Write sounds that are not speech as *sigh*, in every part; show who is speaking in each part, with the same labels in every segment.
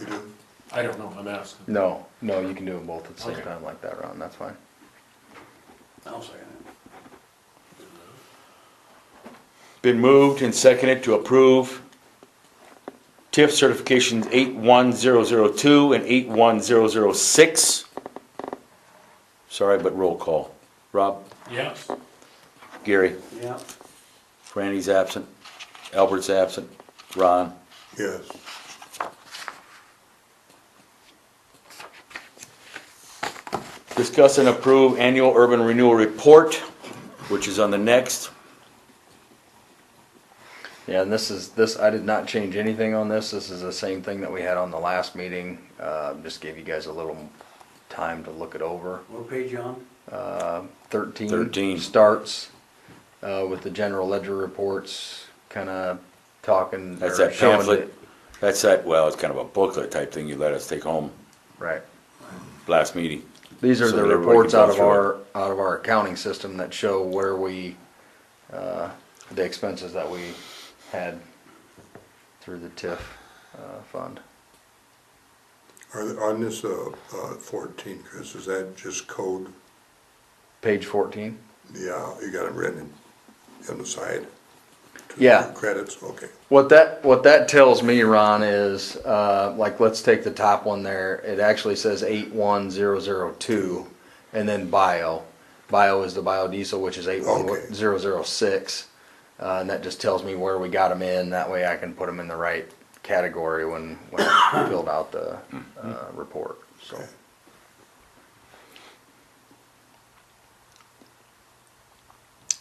Speaker 1: you do?
Speaker 2: I don't know, I'm asking.
Speaker 3: No, no, you can do them both at the same
Speaker 2: Okay.
Speaker 3: time like that, Ron, that's fine.
Speaker 4: I'll second it.
Speaker 5: Been moved and seconded to approve TIF certifications 81002 and 81006. Sorry, but roll call. Rob,
Speaker 2: Yes,
Speaker 5: Gary,
Speaker 4: Yeah,
Speaker 5: Franny's absent, Albert's absent, Ron.
Speaker 1: Yes.
Speaker 5: Discuss and approve annual urban renewal report, which is on the next.
Speaker 3: Yeah, and this is, this, I did not change anything on this, this is the same thing that we had on the last meeting, uh, just gave you guys a little time to look it over.
Speaker 4: what page you on?
Speaker 3: Uh, thirteen.
Speaker 5: 13.
Speaker 3: Starts, uh, with the general ledger reports, kinda talking.
Speaker 5: That's
Speaker 3: or
Speaker 5: that
Speaker 3: showing
Speaker 5: pamphlet.
Speaker 3: it.
Speaker 5: That's that, well, it's kind of a booklet type thing you let us take home
Speaker 3: Right.
Speaker 5: last meeting.
Speaker 3: These are
Speaker 5: So
Speaker 3: the
Speaker 5: that everybody
Speaker 3: reports
Speaker 5: can go
Speaker 3: out of
Speaker 5: through it.
Speaker 3: our, out of our accounting system that show where we, uh, the expenses that we had through the TIF, uh, fund.
Speaker 1: Are, th- on this, uh, uh, fourteen, Chris, is that just code?
Speaker 3: Page fourteen?
Speaker 1: Yeah, you got it written in- on the side?
Speaker 3: Yeah.
Speaker 1: Credits, okay.
Speaker 3: What that, what that tells me, Ron, is, uh, like, let's take the top one there. It actually says eight one zero zero two and then bio. Bio is the biodiesel, which is eight
Speaker 1: Okay.
Speaker 3: one zero zero six. Uh, and that just tells me where we got them in. That way I can put them in the right category when, when I filled out the, uh, report, so.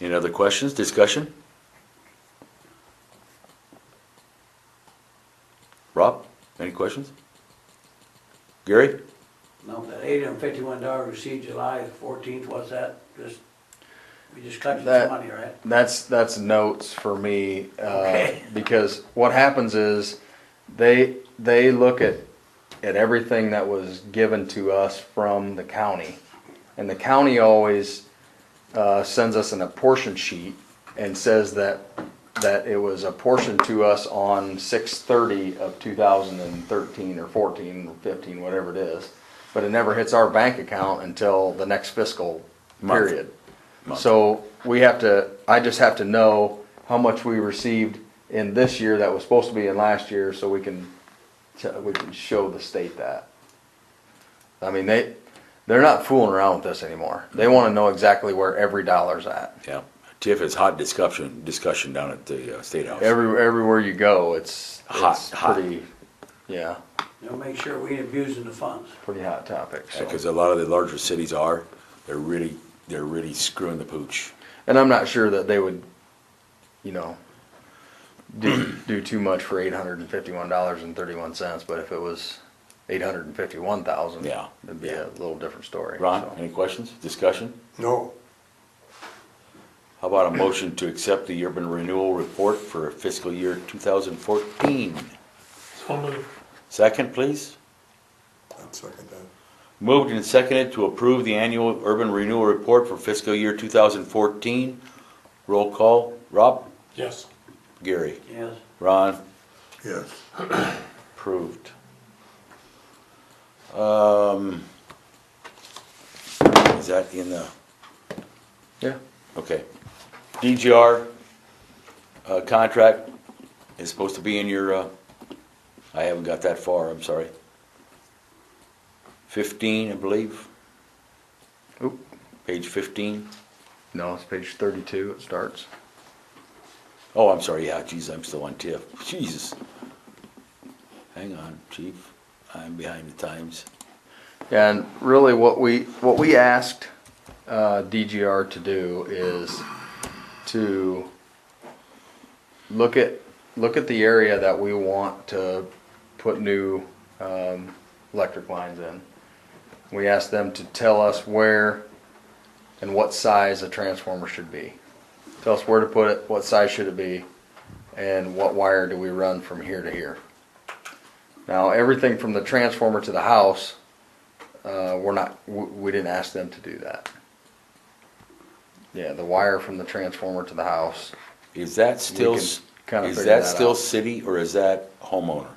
Speaker 5: Any other questions, discussion? Rob, any questions? Gary?
Speaker 4: No, that eight hundred fifty-one dollar received July fourteenth, what's that? Just, we just cut you some
Speaker 3: That-
Speaker 4: money, right?
Speaker 3: That's, that's notes for me, uh,
Speaker 4: Okay.
Speaker 3: *laughs* because what happens is, they, they look at, at everything that was given to us from the county. And the county always, uh, sends us an apportion sheet and says that, that it was apportioned to us on six thirty of two thousand and thirteen or fourteen or fifteen, whatever it is. But it never hits our bank account until the next fiscal
Speaker 5: Month.
Speaker 3: period.
Speaker 5: Month.
Speaker 3: So we have to, I just have to know how much we received in this year that was supposed to be in last year, so we can, t- we can show the state that. I mean, they, they're not fooling around with this anymore. They wanna know exactly where every dollar's at.
Speaker 5: Yeah. Tiff is hot discussion, discussion down at the uh, State House.
Speaker 3: Every, everywhere you go, it's,
Speaker 5: Hot,
Speaker 3: it's
Speaker 5: hot.
Speaker 3: pretty, yeah,
Speaker 4: They'll make sure we ain't abusing the funds.
Speaker 3: pretty hot topic, so.
Speaker 5: Because a lot of the larger cities are, they're really, they're really screwing the pooch.
Speaker 3: And I'm not sure that they would, you know, do, do too much for eight hundred and fifty-one dollars and thirty-one cents, but if it was eight hundred and fifty-one thousand,
Speaker 5: Yeah,
Speaker 3: it'd be
Speaker 5: yeah.
Speaker 3: a little different story.
Speaker 5: Ron,
Speaker 3: so.
Speaker 5: any questions, discussion?
Speaker 1: No,
Speaker 5: How about a motion to accept the urban renewal report for fiscal year 2014?
Speaker 2: so moved.
Speaker 5: Second, please.
Speaker 1: I'd second that.
Speaker 5: Moved and seconded to approve the annual urban renewal report for fiscal year 2014. Roll call, Rob?
Speaker 2: yes,
Speaker 5: Gary?
Speaker 4: Yes,
Speaker 5: Ron?
Speaker 1: Yes.
Speaker 5: Approved. Um, Is that in the,
Speaker 3: Yeah,
Speaker 5: okay. DGR uh, contract is supposed to be in your, uh, I haven't got that far, I'm sorry. 15, I believe,
Speaker 3: oop,
Speaker 5: page 15.
Speaker 3: no, it's page thirty-two, it starts.
Speaker 5: Oh, I'm sorry, yeah, geez, I'm still on TIF. *laughs* Jesus. Hang on, chief, I'm behind the times.
Speaker 3: And really what we, what we asked, uh, DGR to do is to look at, look at the area that we want to put new, um, electric lines in. We asked them to tell us where and what size a transformer should be. Tell us where to put it, what size should it be, and what wire do we run from here to here. Now, everything from the transformer to the house uh, we're not, we, we didn't ask them to do that. Yeah, the wire from the transformer to the house.
Speaker 5: Is that still,
Speaker 3: can
Speaker 5: s-
Speaker 3: kinda
Speaker 5: is
Speaker 3: figure
Speaker 5: that
Speaker 3: that
Speaker 5: still
Speaker 3: out.
Speaker 5: city or is that homeowner?